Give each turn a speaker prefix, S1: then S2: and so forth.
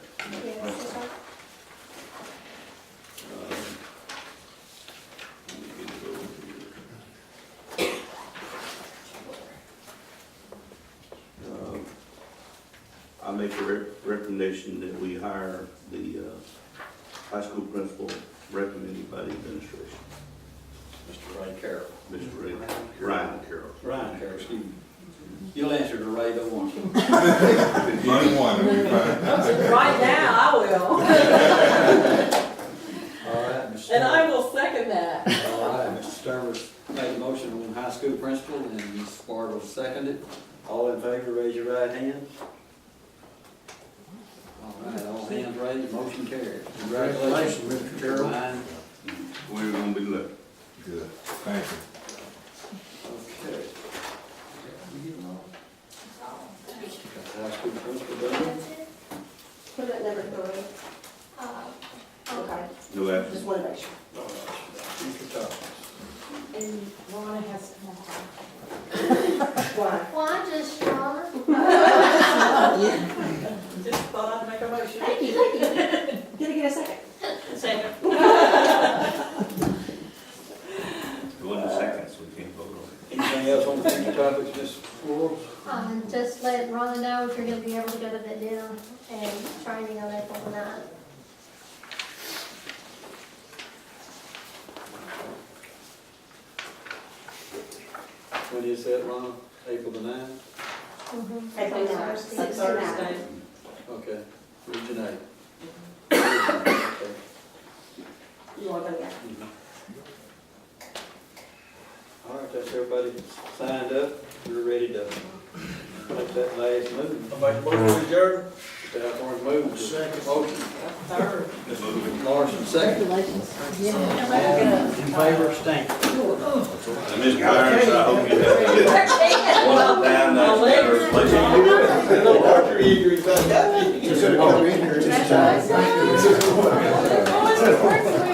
S1: Um, make a re- recommendation that we hire the uh, high school principal recommended by the administration,
S2: Mr. Ray Carroll.
S1: Mr. Ray, Ryan Carroll.
S2: Ryan Carroll, excuse me. You'll answer to Ray, don't want you.
S3: Anyone, it'll be fine.
S4: Right now, I will,
S2: All right, Mr.
S4: and I
S2: Sturman.
S4: will second that.
S2: All right, Mr. Sturman made a motion on high school principal, and Ms. Fargo seconded it. All in favor, raise your right hand. All right, all hands raised, motion carried. Congratulations, Mr. Carroll. Mine.
S1: We're gonna be looking.
S3: Good, thank you.
S2: Okay. Got high school principal done?
S5: Put it at number three. Okay,
S1: No action.
S5: just one motion.
S2: All right, Mr. Thomas.
S4: And Rhonda has come on.
S5: Why?
S6: Why just y'all?
S4: Just thought I'd make a motion.
S5: Thank you, thank you. Did I get a second?
S4: Second.
S1: It wasn't a second, so we can't vote on
S2: Anything else on the future topics, Ms. Flores?
S6: Um, just let Rhonda know if you're gonna be able to go to the gym and training on April ninth.
S2: When is that, Ron? April the ninth?
S5: April ninth,
S6: Thursday.
S5: six to nine.
S2: Okay, region eight. Okay.
S5: You wanna go, yeah?
S2: All right, that's everybody signed up, we're ready to make that last move.
S7: Make a motion, Jared?
S2: Mr. Alcorn moved. Second. Motion,
S4: Third.
S1: it.
S2: Larson second. In favor, stank.
S1: And Mr. Irons, I hope you have a good one down, that's better.
S4: My legs.
S1: Let you-
S7: Little archery injury, but that.
S2: Just a moment.